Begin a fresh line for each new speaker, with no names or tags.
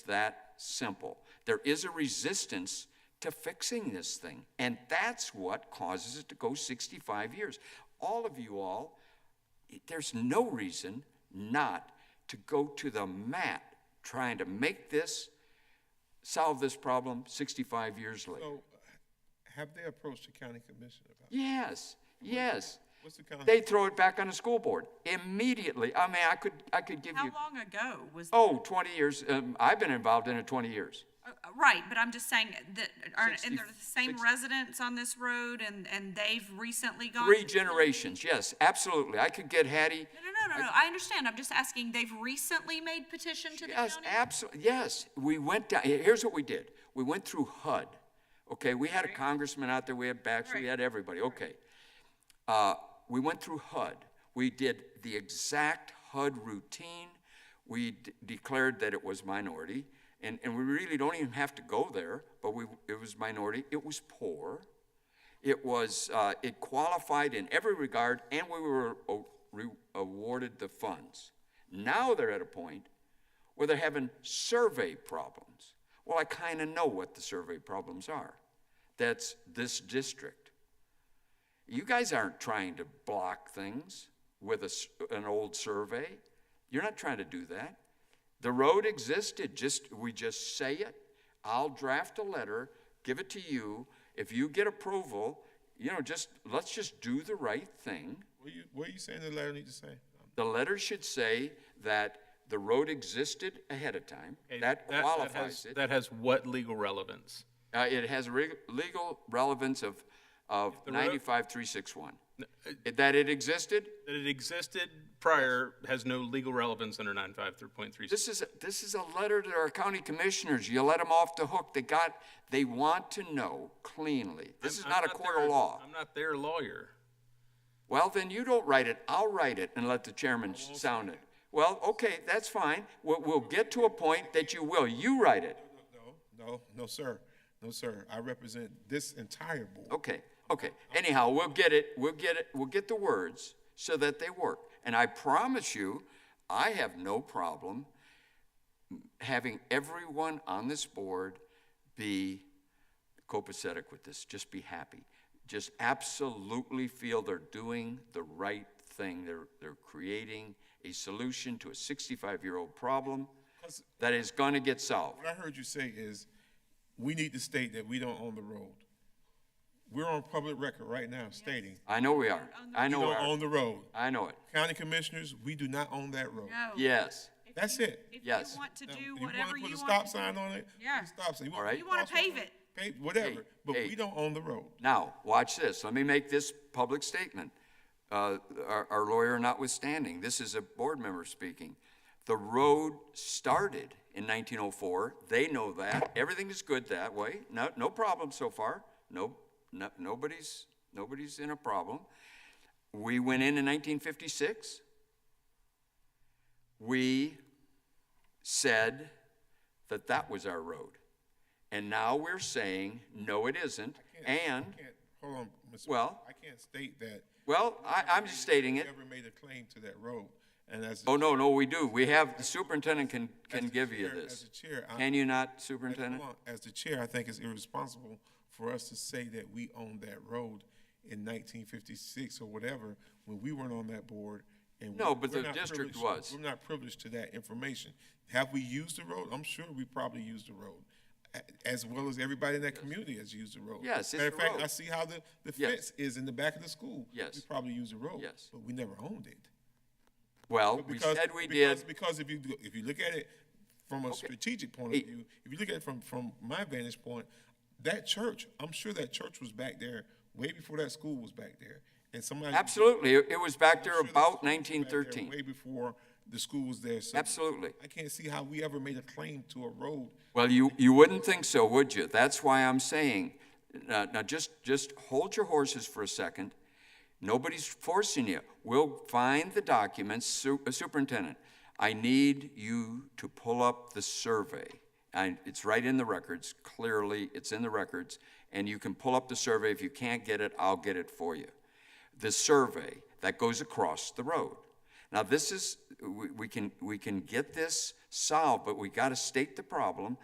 that simple. There is a resistance to fixing this thing, and that's what causes it to go 65 years. All of you all, there's no reason not to go to the mat trying to make this, solve this problem 65 years later.
So, have they approached the county commission about it?
Yes, yes.
What's the county?
They throw it back on the school board immediately. I mean, I could, I could give
How
you,
long ago was, uh,
oh, 20 years, um, I've been involved in it 20 years.
uh, right, but I'm just saying that, are,
Sixty-
and they're the same
sixty-
residents on this road and, and they've recently gone?
Three generations, yes, absolutely. I could get Hattie,
No, no, no, no, no, I understand, I'm just asking, they've recently made petition to the county?
yes, absolutely, yes. We went down, here- here's what we did. We went through HUD, okay? We had a congressman out there, we had Baxter, we
Right.
had everybody, okay. Uh, we went through HUD. We did the exact HUD routine. We d- declared that it was minority, and, and we really don't even have to go there, but we, it was minority. It was poor. It was, uh, it qualified in every regard, and we were o- re- awarded the funds. Now they're at a point where they're having survey problems. Well, I kind of know what the survey problems are. That's this district. You guys aren't trying to block things with a s an old survey. You're not trying to do that. The road existed, just, we just say it. I'll draft a letter, give it to you. If you get approval, you know, just, let's just do the right thing.
What you, what you saying the letter need to say?
The letter should say that the road existed ahead of time.
Okay,
That
has-
qualifies it.
That has what legal relevance?
Uh, it has reg- legal relevance of, of ninety-five, three, six, one. That it existed,
That it existed prior has no legal relevance under 953.3.
This is, this is a letter to our county commissioners. You let them off the hook. They got, they want to know cleanly. This is
I'm
not a court of
their-
law.
I'm not their lawyer.
Well, then you don't write it. I'll write it and let the chairman sound it. Well, okay, that's fine. We'll, we'll get to a point that you will. You write it.
No, no, no, sir, no, sir. I represent this entire board.
Okay, okay. Anyhow, we'll get it, we'll get it, we'll get the words so that they work. And I promise you, I have no problem having everyone on this board be copacetic with this, just be happy. Just absolutely feel they're doing the right thing. They're, they're creating a solution to a 65-year-old problem that is gonna get solved.
What I heard you say is, we need to state that we don't own the road. We're on public record right now stating,
I know we are. I
we
know we
don't
are.
own the road.
I know it.
County commissioners, we do not own that road.
No.
Yes.
If
That's
you-
it.
If
Yes.
you want to
Now,
do
wanna
whatever you
Put a
want
stop
to do.
sign on it? put a
Yeah.
Stop sign.
All right.
You wanna
crosswalk on
pave it.
Pave, whatever,
Hey,
but
hey.
we don't own the road.
Now, watch this. Let me make this public statement. Uh, our, our lawyer notwithstanding, this is a board member speaking. The road started in 1904. They know that. Everything is good that way. No, no problem so far. No, no, nobody's, nobody's in a problem. We went in in 1956. We said that that was our road. And now we're saying, no, it isn't. And,
I can't- Hold on, Mr.
Well-
I can't state that.
well, I, I'm just stating it.
Never made a claim to that road, and as.
Oh, no, no, we do. We have, the superintendent can, can
as the
give you
chair- As
this.
the chair, I.
Can you not,
as- hold
superintendent?
on, As the chair, I think it's irresponsible for us to say that we owned that road in nineteen fifty-six or whatever, when we weren't on that board. and
No,
we're-
but
we're
the
not
district
privileged-
was.
We're not privileged to that information. Have we used the road? I'm sure we probably used the road, a- as well as everybody in that community has used the road.
Yes, it's
Matter of
the
fact,
road.
I see how the, the
Yes.
fence is in the back of the school.
Yes.
We probably used the road.
Yes.
But we never owned it.
Well,
But
we
because-
said we
because-
did.
Because if you, do- if you look at it from a strategic point of
Hey.
view, if you look at it from, from my vantage point, that church, I'm sure that church was back there way before that school was back there. And somebody.
Absolutely. It it was back
I'm
there
sure that
about
school was back there
1913.
Way before the school was there. So
Absolutely.
I can't see how we ever made a claim to a road.
Well, you, you wouldn't think so, would you? That's why I'm saying, now, now just, just hold your horses for a second. Nobody's forcing you. We'll find the documents, Su- uh, Superintendent. I need you to pull up the survey. And it's right in the records, clearly, it's in the records. And you can pull up the survey. If you can't get it, I'll get it for you. The survey that goes across the road. Now, this is, we, we can, we can get this solved, but we gotta state the problem,